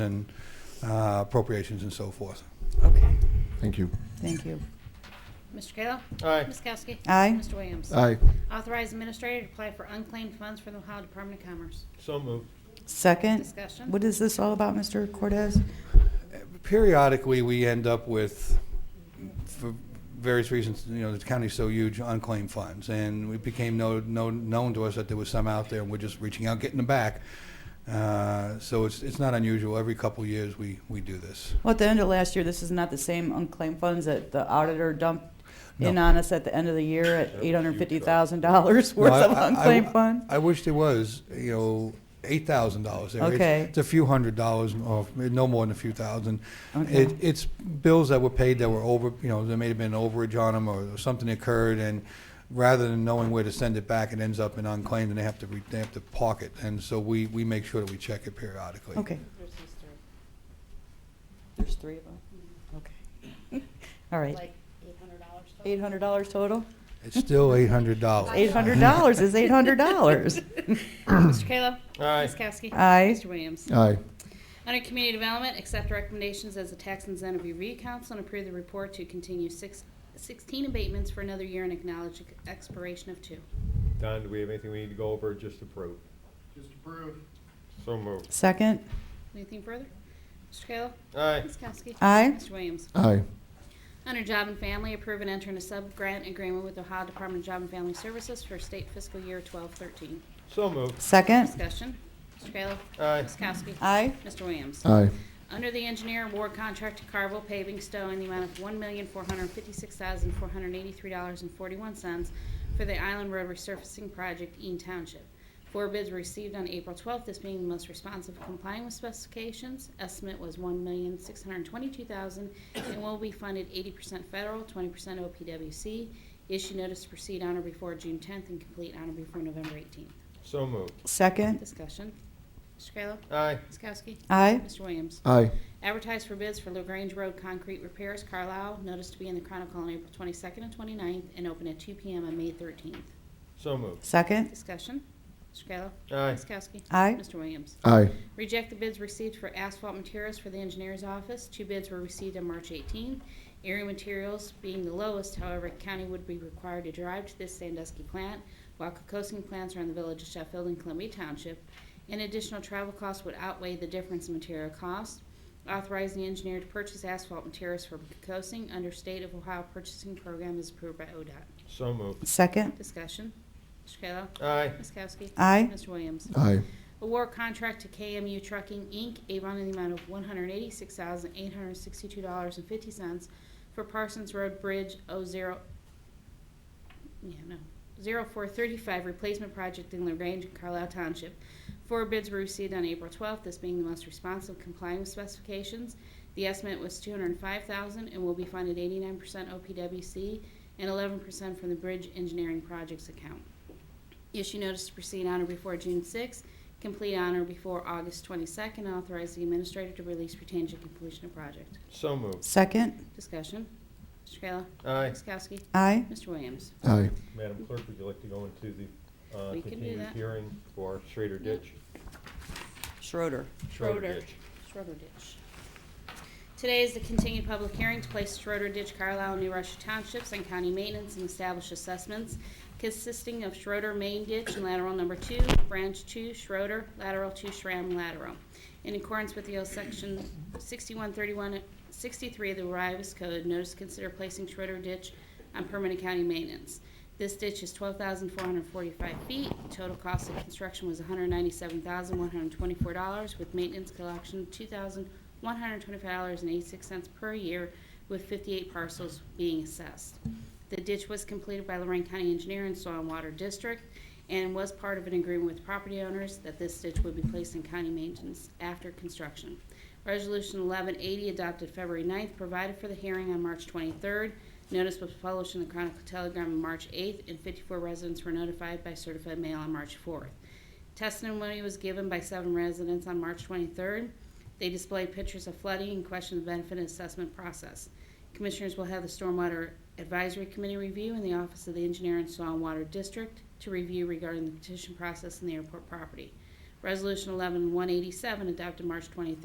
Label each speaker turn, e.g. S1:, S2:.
S1: and uh, appropriations and so forth.
S2: Okay,
S3: Thank you.
S2: thank you.
S4: Mr. Kayla?
S5: Aye.
S4: Ms. Kowski?
S2: Aye.
S4: Mr. Williams?
S3: Aye.
S4: Authorize administrator to apply for unclaimed funds from the Ohio Department of Commerce.
S5: So moved.
S2: Second,
S4: Discussion.
S2: what is this all about, Mr. Cortez?
S1: Periodically, we end up with, for various reasons, you know, the county's so huge, unclaimed funds. And it became known, known known to us that there was some out there, and we're just reaching out, getting them back. Uh, So it's, it's not unusual. Every couple of years, we, we do this.
S2: Well, at the end of last year, this is not the same unclaimed funds that the auditor dumped in
S1: No.
S2: on us at the end of the year at
S5: was huge, though.
S2: $850,000 worth
S1: No, I-
S2: of
S1: I- I-
S2: unclaimed funds?
S1: I wish there was, you know, eight thousand dollars there. It's-
S2: Okay.
S1: It's a few hundred dollars, or no more than a few thousand.
S2: Okay.
S1: It, it's bills that were paid that were over, you know, there may have been an overage on them, or something occurred, and rather than knowing where to send it back, it ends up in unclaimed, and they have to, re- they have to park it. And so we, we make sure that we check it periodically.
S2: Okay. There's three of them? Okay. All
S6: Mm-hmm.
S2: right.
S6: Like eight hundred dollars total?
S2: $800 total?
S1: It's still eight hundred dollars.
S2: $800 is $800.
S4: Mr. Kayla?
S5: Aye.
S4: Ms. Kowski?
S2: Aye.
S4: Mr. Williams?
S3: Aye.
S4: Under Community Development, accept recommendations as a tax incentive review council and approve the report to continue six, sixteen abatements for another year and acknowledge expiration of two.
S5: Don, do we have anything we need to go over or just approve? Just approve. So moved.
S2: Second,
S4: Anything further? Mr. Kayla?
S5: Aye.
S4: Ms. Kowski?
S2: aye.
S4: Mr. Williams?
S3: Aye.
S4: Under Job and Family, approve and enter in a sub-grant agreement with Ohio Department of Job and Family Services for state fiscal year 1213.
S5: So moved.
S2: Second,
S4: Discussion. Mr. Kayla.
S5: Aye.
S4: Ms. Kowski.
S2: aye.
S4: Mr. Williams.
S3: Aye.
S4: Under the engineer award contract to Carville Paving Stowe in the amount of $1,456,483.41 for the Island Road Resurfacing Project, Eaton Township. Four bids were received on April 12th, this being the most responsive complying with specifications. Estimate was $1,622,000 and will be funded 80% federal, 20% OPWC. Issue notice to proceed on or before June 10th and complete on or before November 18th.
S5: So moved.
S2: Second,
S4: Discussion. Mr. Kayla.
S5: Aye.
S4: Ms. Kowski.
S2: aye.
S4: Mr. Williams.
S3: Aye.
S4: Advertise for bids for LaGrange Road concrete repairs, Carlisle. Notice to be in the Chronicle on April 22nd and 29th and open at 2 PM on May 13th.
S5: So moved.
S2: Second,
S4: Discussion. Mr. Kayla.
S5: Aye.
S4: Ms. Kowski.
S2: aye.
S4: Mr. Williams.
S3: Aye.
S4: Reject the bids received for asphalt materials for the engineer's office. Two bids were received on March 18. Area materials being the lowest, however, county would be required to drive to this Sandusky plant, while Cocosing plants are in the village of Sheffield and Columbia Township. An additional travel cost would outweigh the difference in material cost. Authorize the engineer to purchase asphalt materials from Cocosing under State of Ohio Purchasing Program as approved by ODOT.
S5: So moved.
S2: Second,
S4: Discussion. Mr. Kayla.
S5: Aye.
S4: Ms. Kowski.
S2: aye.
S4: Mr. Williams.
S3: Aye.
S4: Award contract to KMU Trucking, Inc., Avon, in the amount of $186,862.50 for Parsons Road Bridge 0, yeah, no, 0435 replacement project in LaGrange and Carlisle Township. Four bids were received on April 12th, this being the most responsive complying with specifications. The estimate was $205,000 and will be funded 89% OPWC and 11% from the Bridge Engineering Projects account. Issue notice to proceed on or before June 6th, complete on or before August 22nd, and authorize the administrator to release retained to completion of project.
S5: So moved.
S2: Second,
S4: Discussion. Mr. Kayla.
S5: Aye.
S4: Ms. Kowski.
S2: aye.
S4: Mr. Williams.
S3: Aye.
S5: Madam Clerk, would you like to go into the uh,
S4: We can do
S5: continued
S4: that.
S5: hearing for Schrader Ditch?
S2: Schroeder.
S4: Schroeder.
S5: Ditch.
S4: Schroeder Ditch. Today is the continued public hearing to place Schroeder Ditch, Carlisle, and New Russia Townships on county maintenance and establish assessments consisting of Schroeder Main Ditch and lateral number two, branch two Schroeder, lateral two Schramm lateral. In accordance with the O section 6131, 63 of the Rivers Code, notice to consider placing Schroeder Ditch on permanent county maintenance. This ditch is twelve thousand four hundred forty-five feet. Total cost of construction was one hundred ninety-seven thousand one hundred twenty-four dollars, with maintenance collection two thousand one hundred twenty-five dollars and eighty-six cents per year, with fifty-eight parcels being assessed. The ditch was completed by Lorraine County Engineer and Soil and Water District, and was part of an agreement with property owners that this ditch would be placed in county maintenance after construction. Resolution 1180 adopted February 9th provided for the hearing on March 23rd. Notice was published in the Chronicle Telegram on March 8th, and 54 residents were notified by certified mail on March 4th. Testimony was given by seven residents on March 23rd. They displayed pictures of flooding and questioned the benefit and assessment process. Commissioners will have the Stormwater Advisory Committee review in the Office of the Engineer and Soil and Water District to review regarding the petition process in the airport property. Resolution 11187 adopted March 23rd